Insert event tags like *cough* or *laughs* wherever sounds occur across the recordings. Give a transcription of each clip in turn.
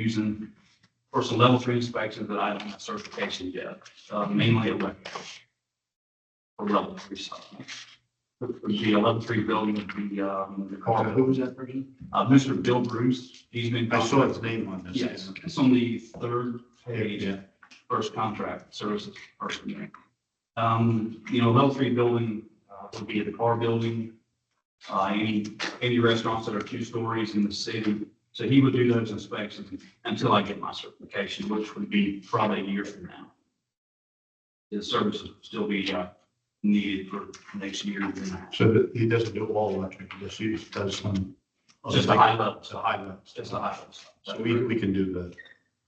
using for some level three inspections that I don't have certification yet, uh, mainly electrical. For level three stuff. Would be a level three building, would be, um, the car, Who was that person? uh, Mr. Bill Bruce, he's been. I saw his name on this. Yes, it's on the third page Yeah, first contract services person. Um, you know, level three building, uh, would be the car building, uh, any, any restaurants that are two stories in the city. So he would do those inspections until I get my certification, which would be probably a year from now. The service would still be, uh, needed for next year and then so that he doesn't do all electric, he just uses, does some. Just the high level, It's a high level. just the high level stuff. So we, we can do the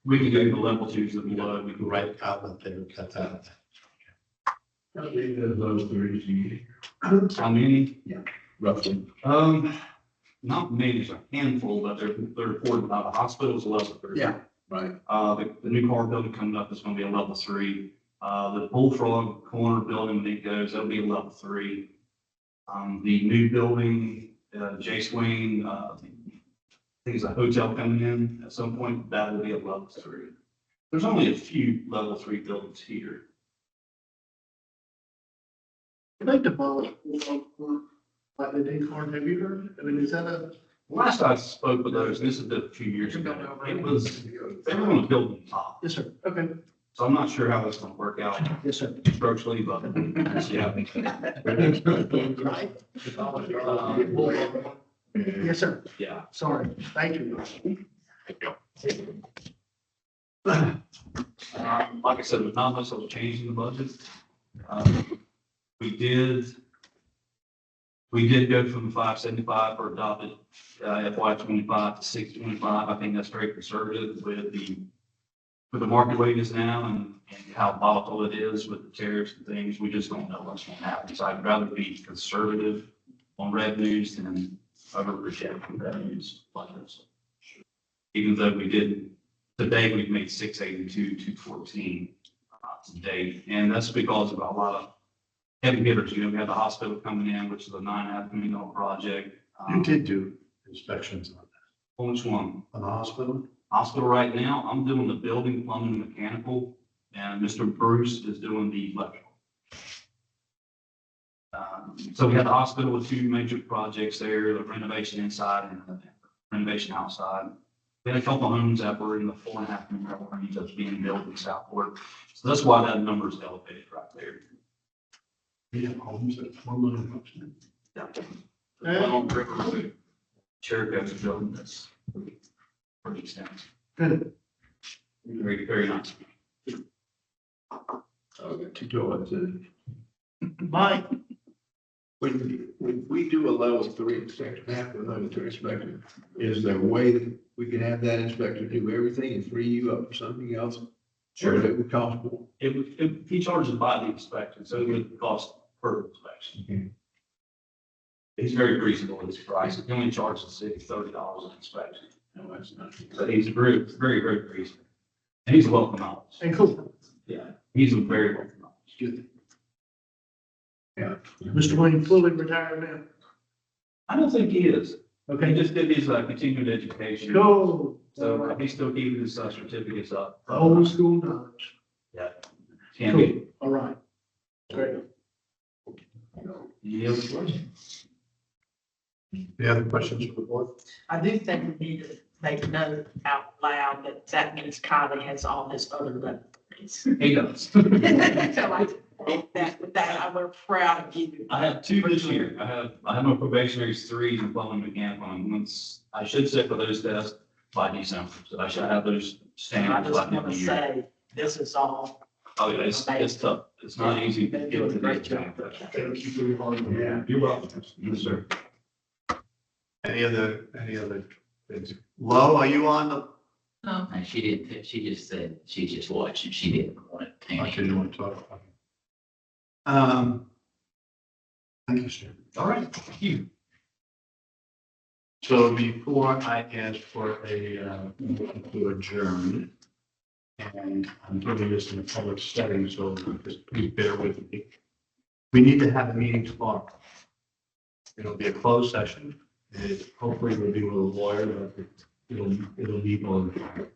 We can do the level twos that we love, we can write right outlet there, cut that out. how many. Roughly. Um, not many, there's a handful, but they're, they're reported by the hospitals, level three. Yeah, right. Uh, the, the new car building coming up is gonna be a level three. Uh, the Bullfrog Corner building, when it goes, that'll be a level three. Um, the new building, uh, Jace Wayne, uh, I think there's a hotel coming in at some point, that will be a level three. There's only a few level three buildings here. I'd like to follow up on what the day farm, have you heard? I mean, is that a? Last I spoke with those, this is a few years ago, it was, they were gonna build on top. Yes, sir. Okay. So I'm not sure how that's gonna work out Yes, sir. structurally, but yeah. Right? Uh, well, Yes, sir. Yeah. Sorry. Thank you. Uh, Like I said, there's not much of a change in the budget. Uh, We did, we did go from five seventy-five for adopted uh, FY twenty-five to six twenty-five. I think that's very conservative with the, with the market rate is now and, and how volatile it is with the tariffs and things. We just don't know what's going to happen. So I'd rather be conservative on revenues than over projecting revenues like this. Even though we did Today, we've made six eighty-two, two fourteen, uh, today, and that's because of a lot of heavy hitters, you know, we had the hospital coming in, which is a nine and a half million dollar project. Um, You did do inspections on on Which one? that, on the hospital? um, Hospital right now, I'm doing the building, plumbing, and mechanical, and Mr. Bruce is doing the electrical. Um, So we had the hospital with two major projects there, the renovation inside and renovation outside. We had a couple homes that were in the four and a half million dollar range that's being built in Southport. So that's why that number is elevated right there. We have homes that four million bucks. The one on River Road, Cherico's building that's pretty extensive, Good. very, very nice. to go into. Mike, When, when we do a level three inspection, half a level three inspector, is there a way that we can have that inspector do everything and free you up for something else? Sure. That would cost more. It would, it, he charges by the inspection, so it would cost per Mm-hmm. inspection. He's very reasonable in his price. He only charges the city thirty dollars an inspection. No, that's not. So he's very, very, very reasonable. And he's welcome out. and cool. Yeah, he's a very welcome out. Good. Yeah. Mr. Wayne fully retired I don't think he is. now. He Okay. just did his, uh, continued education. Go. So uh, he's still keeping his uh, certificates up. Old school knowledge. Yeah. Can't be. All right. Great. Any other questions? Any other questions for the board? I do think we need to make note out loud that that means Kylie has all his other liberties. He does. *laughs* So I think that, with that, I we're proud of you. I have two this year. I have, I have my probationaries three and plumbing mechanical. And once, I should sit for those tests by December. So I should have those And I standards by just the end want of the to year. say, this is all. Oh, yeah, it's, it's tough. It's not easy to get to Great that. job. Thank you for your hard work. Yeah. You're welcome. Yes, sir. Any other, any other things? Lo, are you on the, No, and she didn't, she just said, she just watched and she didn't want to. okay, you want to talk? Okay. Um. Thank you, sir. All right, thank you. So before I ask for a, uh, motion to adjourn, and I'm doing this in a public setting, so just please bear with me. We need to have a meeting tomorrow. It'll be a closed session, and hopefully we'll be with a lawyer, but it'll, it'll be on.